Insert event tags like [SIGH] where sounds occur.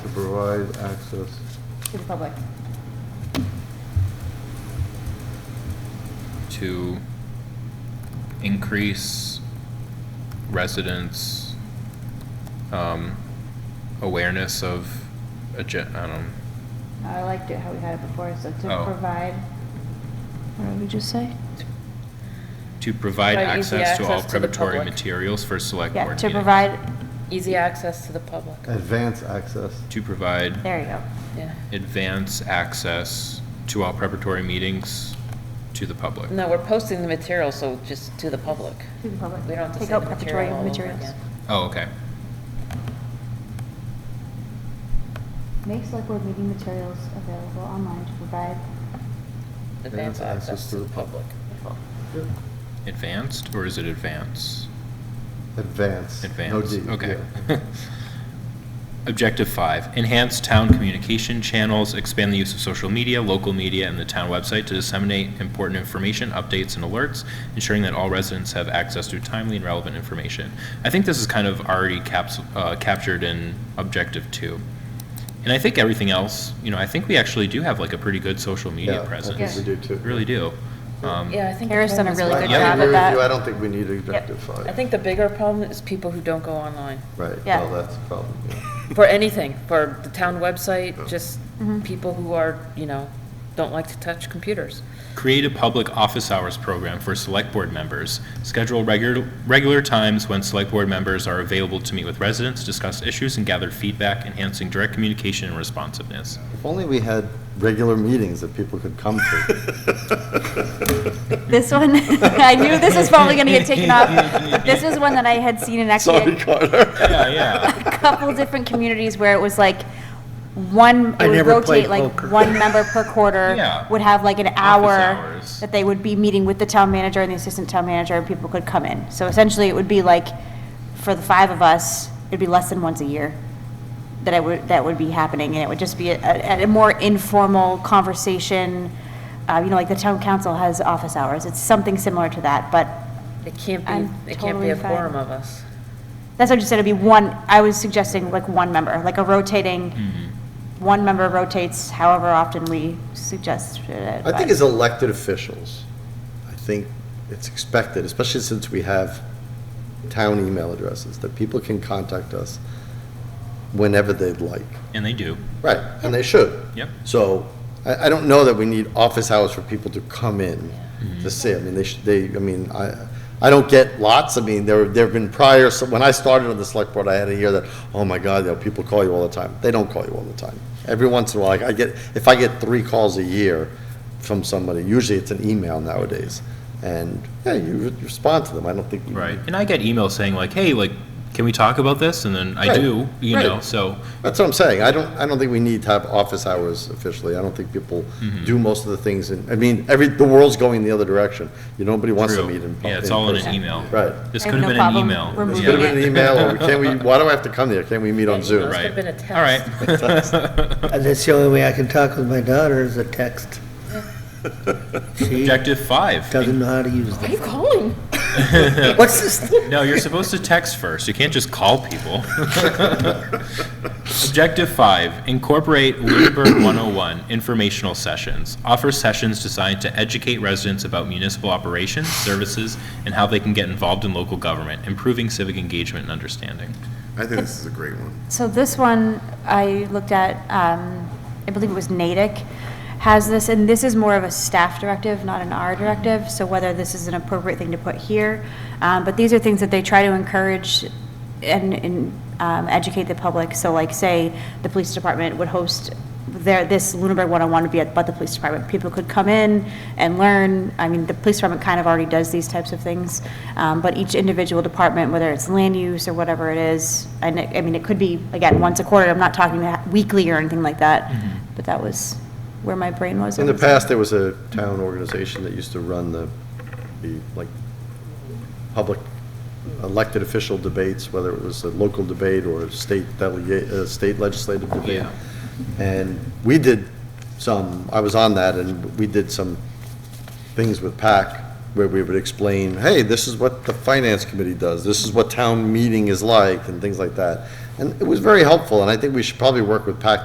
provide access. to the public. to increase residents' um, awareness of a gen, I don't, I liked it how we had it before, so to Oh. provide, what did we just say? to provide Provide easy access to all access to the preparatory public. materials for select board Yeah, meetings. to provide, Easy access to the public, Advance access. To provide there you go. yeah. advance access to all preparatory meetings to the public. No, we're posting the material, so just to the public. To the public. We don't have to Take say out the preparatory material all over materials. again. Oh, okay. Make select board meeting materials available online to provide. Advance access to the public. Advanced, or is it advance? Advance. No Advance, D, okay. [LAUGHS] yeah. Objective five, enhance town communication channels, expand the use of social media, local media, and the town website to disseminate important information, updates, and alerts, ensuring that all residents have access to timely and relevant information. I think this is kind of already caps, uh, captured in objective two. And I think everything else, you know, I think we actually do have like a pretty good social Yeah, media I presence. think we do too. Really do. Um, Yeah, I think. the Kara's done a problem is- really I- good I job agree at with that. you. I don't think we need objective five. I think the bigger problem is people who don't go online. Right, Yeah. well, that's a problem, yeah. [LAUGHS] For anything, for the town website, just Mm-hmm. people who are, you know, don't like to touch computers. Create a public office hours program for select board members. Schedule regular, regular times when select board members are available to meet with residents, discuss issues, and gather feedback, enhancing direct communication and responsiveness. If only we had regular meetings that people could come to. [LAUGHS] This one, [LAUGHS] [LAUGHS] I knew this was probably gonna get taken off. This was one that I had seen in actually [LAUGHS] Yeah, yeah. a couple different communities where it was like one, I it would never rotate, played like poker. one [LAUGHS] member per quarter. [LAUGHS] Yeah. Would have like an hour hours. that they would be meeting with the town manager and the assistant town manager and people could come in. So essentially it would be like, for the five of us, it'd be less than once a year that I would, that would be happening. And it would just be a, a a more informal conversation. Uh, you know, like the town council has office hours. It's something similar to that, but It can't I'm be, it can't totally be a fine. quorum of us. That's what you said, it'd be one, I was suggesting like one member, like a rotating, Mm-hmm. one member rotates however often we suggest it. I think but- as elected officials, I think it's expected, especially since we have town email addresses, that people can contact us whenever they'd like. And they do. Right, and they should. Yep. So I, I don't know that we need office hours for people to come in Mm-hmm. to see. I mean, they should, they, I mean, I, I don't get lots. I mean, there, there have been prior, so when I started on the select board, I had a year that, oh my God, you know, people call you all the time. They don't call you all the time. Every once in a while, like, I get, if I get three calls a year from somebody, usually it's an email nowadays. And, yeah, you re- respond to them. I don't think. you- Right. And I get emails saying like, hey, like, can we talk about this? And then I Right, do, you know, right. so, That's what I'm saying. I don't, I don't think we need to have office hours officially. I don't think people Mm-hmm. do most of the things, and, I mean, every, the world's going the other direction. You, nobody wants to true. meet in. Yeah, it's in all in person. an email. Right. This I could have have no been an problem email. It's removing Yeah. good of an email, or can [LAUGHS] we, why do I have to come there? Can't we meet on Zoom? This could have been a All right. test. [LAUGHS] And that's the only way I can talk with my daughter is a text. She Objective five. doesn't know how to use Why them. are you calling? What's this? No, you're supposed to text first. You can't just call people. Objective five, incorporate Lunenburg 101 informational sessions. Offer sessions designed to educate residents about municipal operations, services, and how they can get involved in local government, improving civic engagement and understanding. I think this is a great one. So this one, I looked at, um, I believe it was Natick, has this, and this is more of a staff directive, not an R directive, so whether this is an appropriate thing to put here. Um, But these are things that they try to encourage and- and um, educate the public. So like, say, the police department would host their, this Lunenburg 101 would be at, but the police department. People could come in and learn, I mean, the police department kind of already does these types of things, um, but each individual department, whether it's land use or whatever it is, and it, I mean, it could be, again, once a quarter, I'm not talking that weekly or anything like that, but that was where my brain was. In the past, there was a town organization that used to run the, the, like, public elected official debates, whether it was a local debate or a state delegate, uh, state legislative debate. And we did some, I was on that, and we did some things with PAC where we would explain, hey, this is what the finance committee does, this is what town meeting is like, and things like that. And it was very helpful, and I think we should probably work with PAC